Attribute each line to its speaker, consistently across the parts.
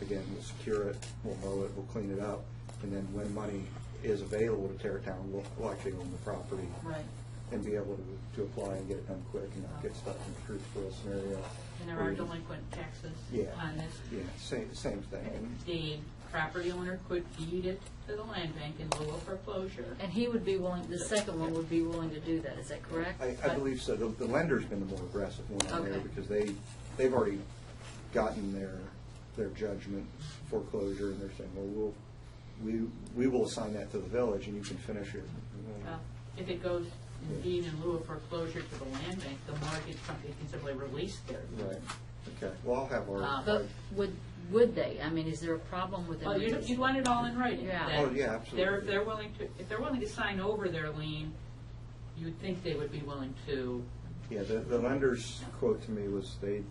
Speaker 1: again, we'll secure it, we'll mow it, we'll clean it up, and then when money is available to tear it down, we'll, we'll actually own the property
Speaker 2: Right.
Speaker 1: and be able to, to apply and get it done quick and not get stuck in a truth for a scenario.
Speaker 2: And there
Speaker 1: where
Speaker 2: are
Speaker 1: you-
Speaker 2: delinquent taxes
Speaker 1: Yeah.
Speaker 2: on this.
Speaker 1: Yeah, same, same thing. And
Speaker 2: The property owner could deed it to the land bank in lieu of foreclosure.
Speaker 3: And he would be willing, the second one would be willing to do that, is that correct?
Speaker 1: I, I believe so. The the lender's been the more aggressive one on there
Speaker 3: Okay.
Speaker 1: because they, they've already gotten their, their judgment foreclosure and they're saying, well, we'll, we, we will assign that to the village and you can finish it.
Speaker 2: Uh, If it goes in deed in lieu of foreclosure to the land bank, the mortgage company can simply release their. lien.
Speaker 1: Right, okay. Well, I'll have
Speaker 2: Uh,
Speaker 1: our,
Speaker 3: Ah, But would, would they? I mean, is there a problem with
Speaker 2: Well, you,
Speaker 3: them?
Speaker 2: you want it all in writing.
Speaker 3: Yeah.
Speaker 2: that
Speaker 1: Oh, yeah, absolutely.
Speaker 2: They're, if they're willing to, if they're willing to sign over their lien, you'd think they would be willing to,
Speaker 1: yeah, the, the lender's quote to me was they,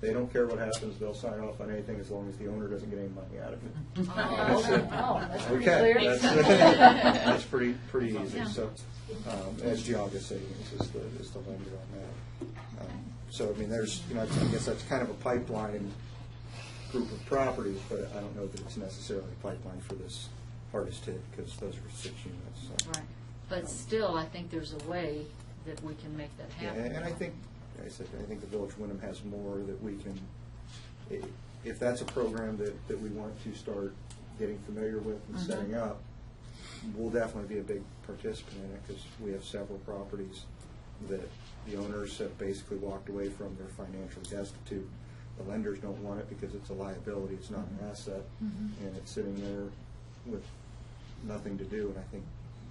Speaker 1: they don't care what happens, they'll sign off on anything as long as the owner doesn't get any money out of it.
Speaker 3: Oh, oh, that's pretty
Speaker 1: Okay,
Speaker 3: clear.
Speaker 1: that's, that's pretty, pretty easy,
Speaker 3: Yeah.
Speaker 1: so, um, as Giaga saying, this is the, is the lender on that. Um, So, I mean, there's, you know, I guess that's kind of a pipeline group of properties, but I don't know that it's necessarily a pipeline for this hardest hit, because those are six units, so.
Speaker 3: Right. But still, I think there's a way that we can make that
Speaker 1: Yeah,
Speaker 3: happen.
Speaker 1: and and I think, like I said, I think the Village of Wyndham has more that we can, i- if that's a program that, that we want to start getting familiar with and setting up, we'll definitely be a big participant in it, because we have several properties that the owners have basically walked away from, they're financially destitute. The lenders don't want it because it's a liability, it's not an asset, and it's sitting there with nothing to do, and I think,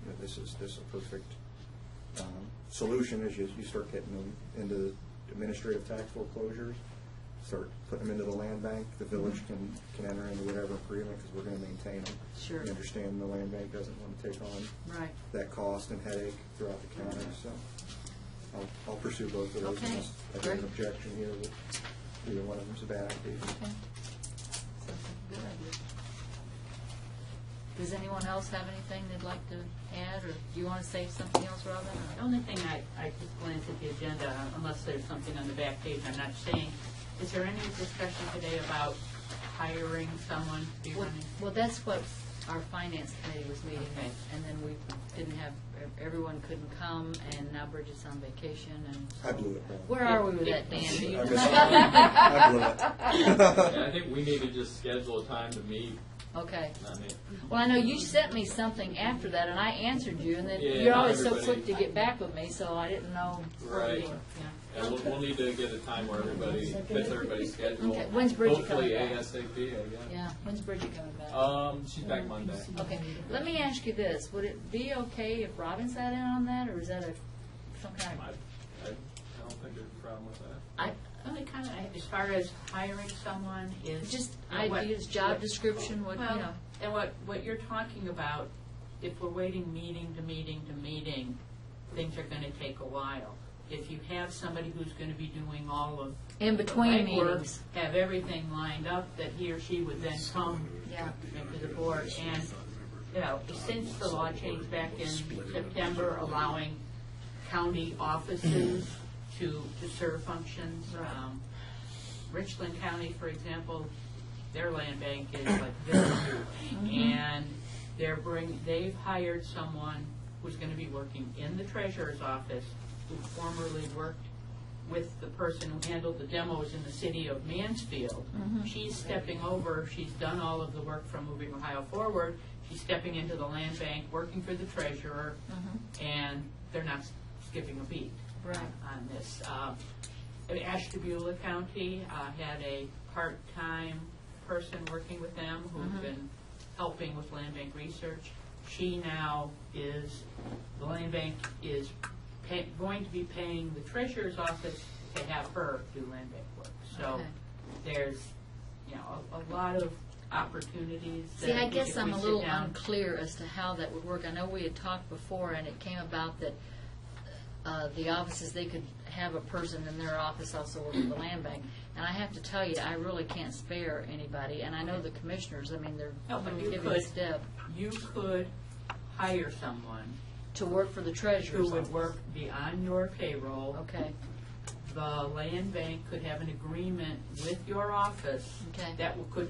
Speaker 1: you know, this is, this is a perfect um, solution is you, you start getting them into administrative tax foreclosures, start putting them into the land bank, the village can, can enter into whatever agreement, because we're gonna maintain them.
Speaker 3: Sure.
Speaker 1: We understand the land bank doesn't want to take on
Speaker 3: Right.
Speaker 1: that cost and headache throughout the county, so I'll, I'll pursue both of those.
Speaker 3: Okay,
Speaker 1: unless I get
Speaker 3: great.
Speaker 1: an objection here that either one of them's a bad idea.
Speaker 3: Okay. Sounds like a good idea. Does anyone else have anything they'd like to add, or do you want to say something else, Robin?
Speaker 2: The
Speaker 3: or-
Speaker 2: only thing I, I just glanced at the agenda, unless there's something on the back page I'm not seeing, is there any discussion today about hiring someone to be
Speaker 3: Well-
Speaker 2: running?
Speaker 3: Well, that's what our finance committee was meeting,
Speaker 2: Okay.
Speaker 3: and then we didn't have, everyone couldn't come, and now Bridget's on vacation, and.
Speaker 1: I blew it. Brian.
Speaker 3: Where are we with that, Dan? Do you
Speaker 1: I
Speaker 3: know?
Speaker 1: missed it. I blew it.
Speaker 4: Yeah, I think we need to just schedule a time to meet,
Speaker 3: Okay.
Speaker 4: I mean,
Speaker 3: Well, I know you sent me something after that, and I answered you, and then
Speaker 4: Yeah,
Speaker 3: you're
Speaker 4: not
Speaker 3: always so
Speaker 4: everybody-
Speaker 3: quick to get back with me, so I didn't know. where we
Speaker 4: Right.
Speaker 3: were.
Speaker 2: Yeah.
Speaker 4: and we'll, we'll need to get a time where everybody, fits everybody's schedule.
Speaker 3: Okay, when's Bridget coming
Speaker 4: Hopefully
Speaker 3: back?
Speaker 4: ASAP, I guess.
Speaker 3: Yeah, when's Bridget coming back?
Speaker 4: Um, she's back Monday.
Speaker 3: Okay, let me ask you this, would it be okay if Robin sat in on that, or is that a, some
Speaker 4: I, I
Speaker 3: kind of?
Speaker 4: don't think there's a problem with that.
Speaker 3: I,
Speaker 2: Only kind of, as far as hiring someone is.
Speaker 3: just
Speaker 2: what-
Speaker 3: ideas, job
Speaker 2: what-
Speaker 3: description, what, you know,
Speaker 2: Well, and what, what you're talking about, if we're waiting meeting to meeting to meeting, things are gonna take a while. If you have somebody who's gonna be doing all of
Speaker 3: in between
Speaker 2: Right, or
Speaker 3: meetings.
Speaker 2: Have everything lined up that he or she would then come
Speaker 3: Yeah.
Speaker 2: into the board. And, you know, since the law changed back in September allowing county offices to, to serve functions, um, Richland County, for example, their land bank is like this. And they're bring, they've hired someone who's gonna be working in the treasurer's office, who formerly worked with the person who handled the demos in the city of Mansfield. She's stepping over, she's done all of the work from Moving Ohio Forward, she's stepping into the land bank, working for the treasurer, and they're not s- skipping a beat
Speaker 3: Right.
Speaker 2: on this. Uh, Ashtabula County uh, had a part-time person working with them
Speaker 3: Mm-hmm.
Speaker 2: who's been helping with land bank research. She now is, the land bank is pay- going to be paying the treasurer's office to have her do land bank work. So
Speaker 3: Okay.
Speaker 2: there's, you know, a a lot of opportunities that
Speaker 3: See, I
Speaker 2: think
Speaker 3: guess
Speaker 2: if
Speaker 3: I'm
Speaker 2: we
Speaker 3: a
Speaker 2: sit
Speaker 3: little
Speaker 2: down-
Speaker 3: unclear as to how that would work. I know we had talked before, and it came about that uh, the offices, they could have a person in their office also work with the land bank. And I have to tell you, I really can't spare anybody, and I know the commissioners, I mean, they're
Speaker 2: No, Oh, but you
Speaker 3: giving
Speaker 2: could.
Speaker 3: a step
Speaker 2: You could hire someone
Speaker 3: to work for the treasurer.
Speaker 2: who would work beyond your payroll.
Speaker 3: Okay,
Speaker 2: the land bank could have an agreement with your office
Speaker 3: Okay.
Speaker 2: that will- could